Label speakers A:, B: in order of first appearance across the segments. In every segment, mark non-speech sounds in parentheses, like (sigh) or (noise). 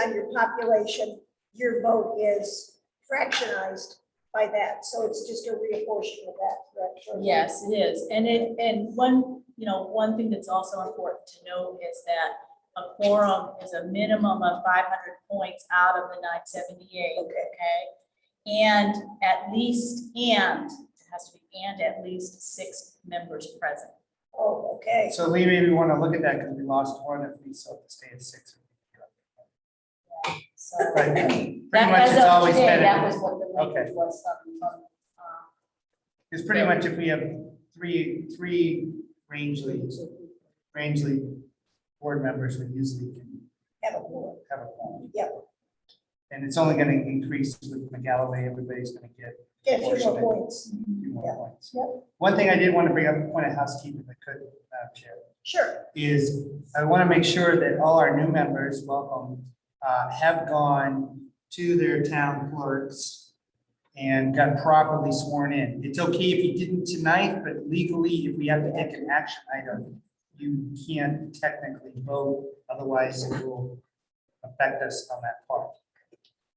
A: on your population, your vote is fractionized by that, so it's just a reapportion of that, correct?
B: Yes, it is. And it, and one, you know, one thing that's also important to note is that a quorum is a minimum of five hundred points out of the nine seventy-eight,
A: Okay.
B: okay? And at least, and, it has to be and at least six members present.
A: Oh, okay,
C: So Lee, maybe we want to look at that because we lost one if we still have to stay at six.
B: So
C: Right, pretty
B: that
C: much
B: as
C: it's
B: of
C: always
B: today, that
C: been,
B: was what the
C: Okay.
B: language was from, from, um,
C: it's pretty much if we have three, three Rangeley, Rangeley board members, we usually can
A: have a quorum.
C: have a one.
A: Yep.
C: And it's only going to increase with McGalloway, everybody's going to get
A: Get a few more points,
B: um,
C: a few more points.
A: Yep.
C: One thing I did want to bring up, a point of housekeeping, if I could, Madam Chair.
A: sure,
C: is I want to make sure that all our new members, welcome, uh, have gone to their town clerks and got properly sworn in. It's okay if you didn't tonight, but legally, if we have to take an action item, you can't technically vote, otherwise it will affect us on that part.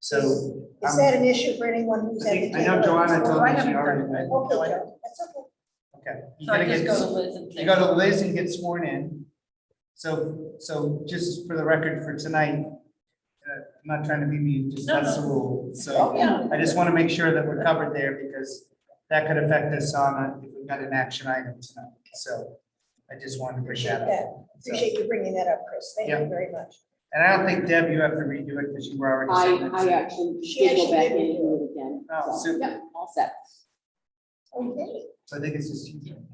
C: So.
A: is
C: I'm-
A: that an issue for anyone who's
C: Um, I
A: at the
C: think-
A: table?
C: I know Joanna
A: Okay,
C: told me she already.
A: Joe, that's okay,
C: Okay. you
B: So I
C: gotta
B: just
C: get-
B: go to Liz and
C: you
B: say,
C: go to Liz and get sworn in. So, so just for the record for tonight, uh, I'm not trying to be mean, just
B: No,
C: that's the
B: no.
C: rule.
B: oh,
C: So
B: yeah,
C: I just want to make sure that we're covered there because that could affect us on, a- if we've got an action item tonight. So I just wanted to bring
A: appreciate
C: that
A: that,
C: up. So-
A: appreciate you bringing that up, Chris, thank
C: Yeah.
A: you very much.
C: And I don't think Deb, you have to redo it because you were already.
D: I,
C: sitting
D: I uh,
C: there.
D: actually
A: She
D: did go
A: actually
D: back in
A: did.
D: and do it again.
C: Oh,
D: So,
C: super.
D: yeah, All set.
A: Okay,
C: So I think it's just you.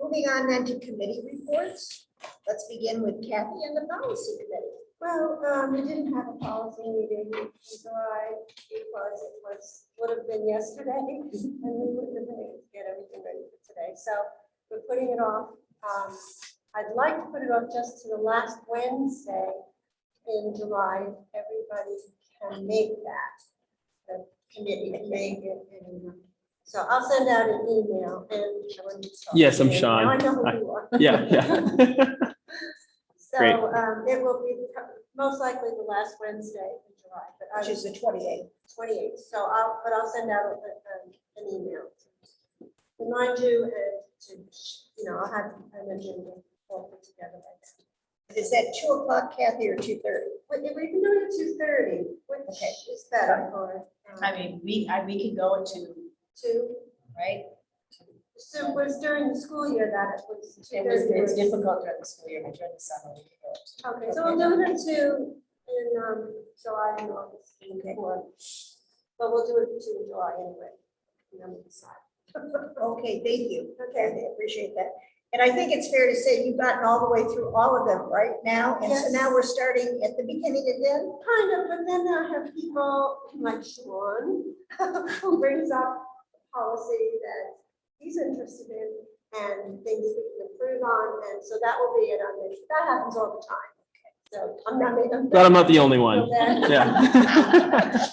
A: moving on then to committee reports, let's begin with Kathy and the policy committee.
E: Well, um, we didn't have a policy meeting in July because it was, would have been yesterday. And we wouldn't have been able to get everything ready for today, so we're putting it off. Um, I'd like to put it off just to the last Wednesday in July. if Everybody can make that. The committee can make it. and, um, So I'll send out an email and. I want you to start.
F: Yes, I'm
E: Now I
F: Sean.
E: know who
F: Hi.
E: you are.
F: Yeah, yeah.
E: So
F: Great.
E: um, it will be pro- most likely the last Wednesday in July, but I
A: Which is the twenty-eighth.
E: twenty-eighth, so I'll, but I'll send out a- a- an email. to Remind you and to, you know, I'll have an agenda all put together by then.
A: Is that two o'clock Kathy or two thirty?
E: But if we can do it at two thirty, which
A: Okay.
E: is better for. um,
B: I mean, we, I, we could go to,
E: Two,
B: right?
E: so it was during the school year that it was.
B: It was,
E: 2:30
B: it's
E: was-
B: difficult during the school year, but during the summer. we could go to-
E: Okay, so we'll do it at two in um, July and August.
A: Okay.
E: Or- But we'll do it at two in July anyway. and then we'll decide.
A: Okay, thank you. Okay, I appreciate that. And I think it's fair to say you've gotten all the way through all of them right now. And so
E: Yes.
A: now we're starting at the beginning again.
E: Kind of, but then I have people like Sean, (laughs) who brings up a policy that he's interested in and things we can improve on, and so that will be it on this. That happens all the time. So I'm not making.
F: Glad I'm not the only one. Yeah.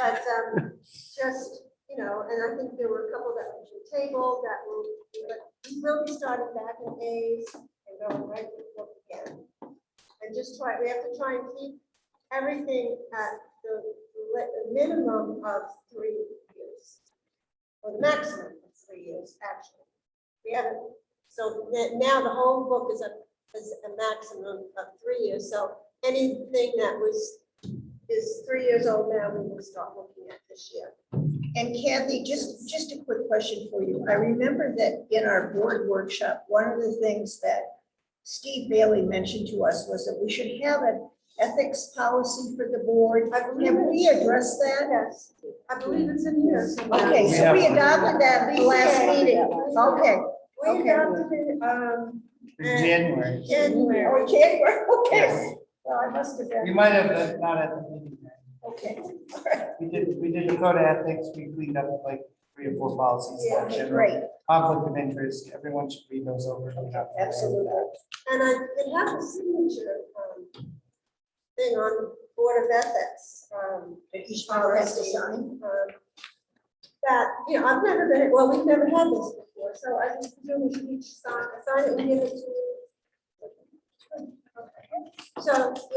E: But um, just, you know, and I think there were a couple that were tabled that will, but we will be starting back in A's and going right to the book again. And just try, we have to try and keep everything at the le- minimum of three years. Or the maximum of three years, actually. We haven't, so that- now the whole book is a, is a maximum of three years. So anything that was is three years old now, we will start looking at this year.
A: And Kathy, just, just a quick question for you. I remember that in our board workshop, one of the things that Steve Bailey mentioned to us was that we should have an ethics policy for the board.
E: I believe
A: Have we
E: it's-
A: addressed that?
E: Yes, I believe it's in here. somewhere.
A: Okay, so we adopted that last meeting. Okay.
E: We
A: okay.
E: adopted it, um,
D: Uh,
C: In January.
E: January.
A: Oh, January, okay. Well, I must have
C: We
A: been,
C: might have, uh, not at the meeting. then.
A: okay.
C: We did, we did the code of ethics, we cleaned up like three or four policies.
E: Yeah,
A: Okay,
C: General
A: Great,
C: Conflict of interest, everyone should read those over.
A: absolutely.
E: And I, it has a signature, um, thing on Board of Ethics, um,
A: That Each power has to sign.
E: um, that, you know, I've never been, well, we've never had this before, so I just presume we should each sign, sign it and give it to. Okay. So